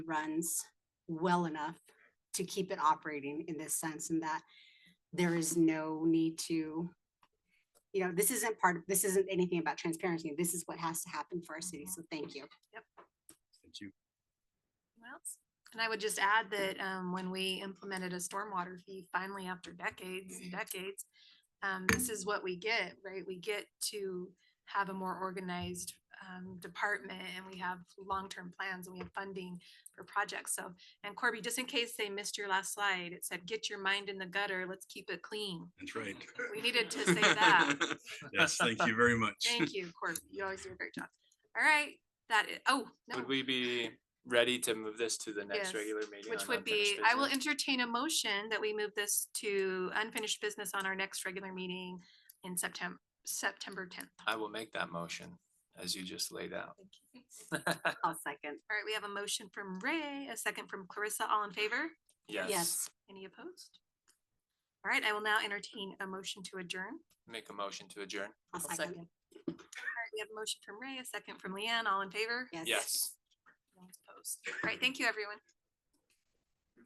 runs well enough to keep it operating in this sense and that there is no need to, you know, this isn't part of, this isn't anything about transparency. This is what has to happen for our city. So thank you. Thank you. Anyone else? And I would just add that um, when we implemented a stormwater fee, finally after decades and decades, um, this is what we get, right? We get to have a more organized um, department and we have long-term plans and we have funding for projects. So, and Corby, just in case they missed your last slide, it said, get your mind in the gutter, let's keep it clean. That's right. We needed to say that. Yes, thank you very much. Thank you, Corby. You always do a great job. All right, that is, oh, no. Would we be ready to move this to the Yes, next regular meeting? Which on would be, unfinished I will business? entertain a motion that we move this to unfinished business on our next regular meeting in September, September tenth. I will make that motion as you just laid out. I'll second. All right, we have a motion from Ray, a second from Clarissa, all in favor? Yes, Yes. Any opposed? All right, I will now entertain a motion to adjourn. All make a motion to adjourn. I'll second. right, we have a motion from Ray, a second from Leanne, all in favor? Yes. Yes. No one's opposed. All right, thank you, everyone.